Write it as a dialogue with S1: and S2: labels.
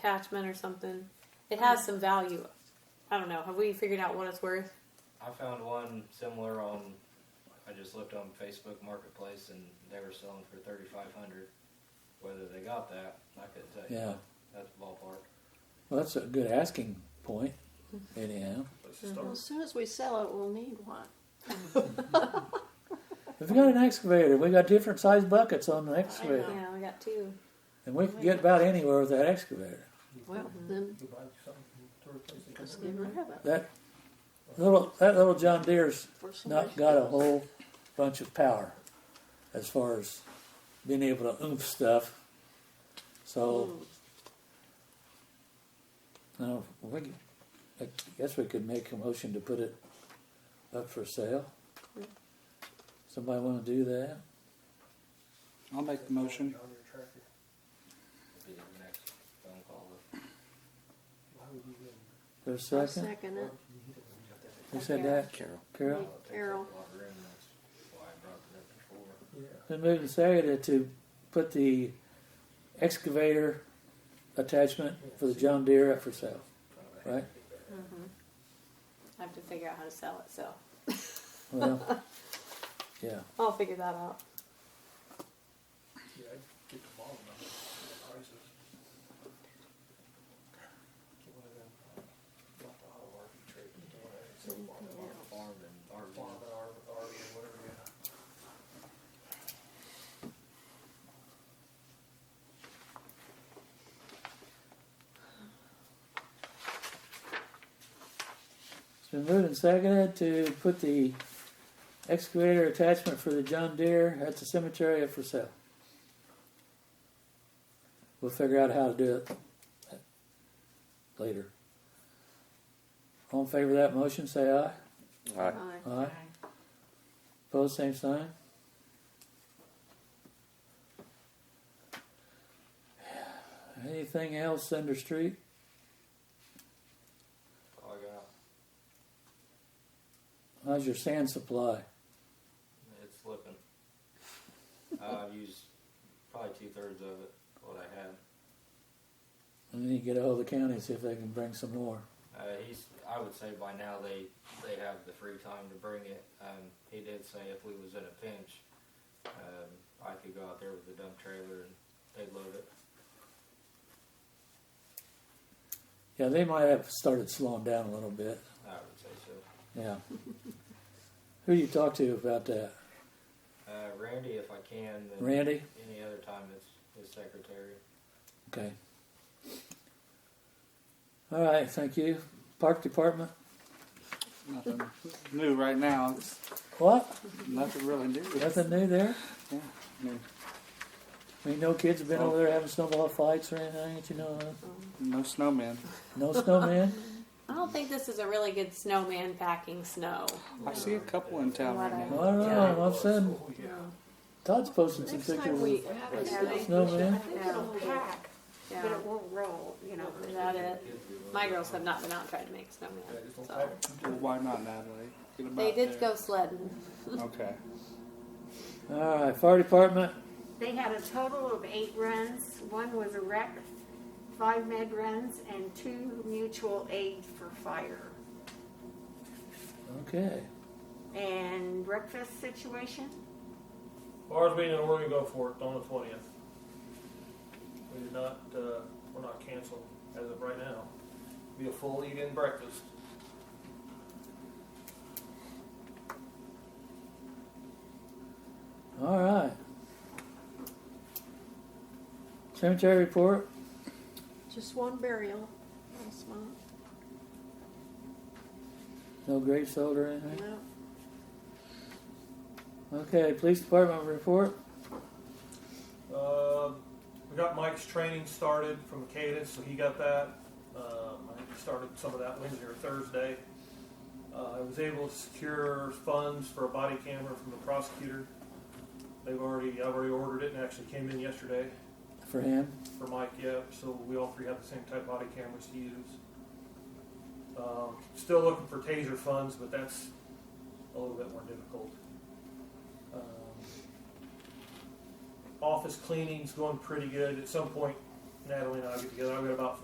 S1: attachment or something. It has some value. I don't know. Have we figured out what it's worth?
S2: I found one similar on. I just looked on Facebook Marketplace and they were selling for thirty five hundred. Whether they got that, I couldn't tell you.
S3: Yeah,
S2: That's ballpark.
S3: well, that's a good asking point, anyhow.
S4: Let's just start.
S5: Well, as soon as we sell it, we'll need one.
S3: If we got an excavator, we got different size buckets on the excavator,
S1: Yeah, we got two.
S3: and we can get about anywhere with that excavator.
S5: Well, then
S4: You buy something to replace it.
S5: let's get rid of it.
S3: That little that little John Deere's
S5: before somebody
S3: not got a
S5: steals it.
S3: whole bunch of power as far as being able to oomph stuff. So no, we, I guess we could make a motion to put it up for sale. Somebody want to do that?
S6: I'll make the motion.
S4: On your tractor.
S2: Be the next phone call.
S4: Why would you even-
S3: There's a
S5: I'll
S3: second.
S5: second it.
S3: Who said that?
S6: Carol.
S3: Carol?
S2: It takes
S5: Errol.
S2: up a lot of room. That's why I brought it up before.
S4: Yeah.
S3: Been moved and seconded to put the excavator attachment for the John Deere up for sale, right?
S1: Mm-hmm. I have to figure out how to sell it, so
S3: Well, yeah,
S1: I'll figure that out.
S4: Yeah, I'd get the ball on the prices. Get one of them, uh, not the auto RV trade, but the one that sells farm and
S5: Yeah.
S2: Farm and
S4: RV,
S2: RV.
S4: farm and RV, or whatever, yeah.
S3: it's been moved and seconded to put the excavator attachment for the John Deere at the cemetery up for sale. We'll figure out how to do it later. All in favor of that motion, say aye.
S6: Aye.
S5: Aye.
S3: Aye. Pose same sign. Anything else under street?
S2: All I got.
S3: How's your sand supply?
S2: It's slipping. uh, I've used probably two thirds of it. What I had.
S3: I need to get ahold of the county and see if they can bring some more.
S2: Uh, he's. I would say by now they they have the free time to bring it. Um, he did say if we was in a pinch, um, I could go out there with the dump trailer and they'd load it.
S3: Yeah, they might have started slowing down a little bit.
S2: I would say so.
S3: Yeah. Who you talk to about that?
S2: Uh, Randy, if I can, then
S3: Randy?
S2: any other time it's his secretary.
S3: Okay. All right, thank you. Park department?
S6: Nothing new right now. It's
S3: What?
S6: nothing really new.
S3: Nothing new there?
S6: Yeah. I mean,
S3: I mean, no kids have been over there having snowball fights or anything that you know of?
S6: no snowmen.
S3: No snowman?
S1: I don't think this is a really good snowman packing snow.
S6: I see a couple in town right
S3: I
S6: now.
S3: don't know. I'm saying
S4: Oh, yeah.
S3: Todd's posting some
S5: Next time we
S3: pictures.
S5: have a
S7: Yeah.
S5: I
S3: Snowman.
S5: think it'll pack.
S1: Yeah.
S7: but it won't roll, you know.
S1: Is that it?
S2: Kids do love
S1: My
S2: it.
S1: girls have not been out trying to make snowman.
S4: Yeah, just don't
S1: So.
S4: pack it.
S6: Well, why not, Natalie? Get 'em
S1: They
S6: out
S1: did
S6: there.
S1: go sledding.
S6: Okay.
S3: All right, fire department.
S7: They had a total of eight runs. One was a wreck, five med runs, and two mutual aid for fire.
S3: Okay.
S7: And breakfast situation?
S8: Ours being in Oregon, go for it, on the twentieth. We did not, uh, we're not canceled as of right now. Be a full eat-in breakfast.
S3: All right. Cemetery report.
S5: Just one burial last month.
S3: No grave sold or anything.
S5: No.
S3: Okay, police department report.
S8: Um, we got Mike's training started from Cadence, so he got that. Um, I think he started some of that Wednesday or Thursday. Uh, I was able to secure funds for a body camera from the prosecutor. They've already, I've already ordered it and actually came in yesterday.
S3: For him.
S8: for Mike, yeah. So we all three have the same type body cameras to use. Um, still looking for taser funds, but that's a little bit more difficult. Um, office cleaning's going pretty good. At some point, Natalie and I get together. I've got about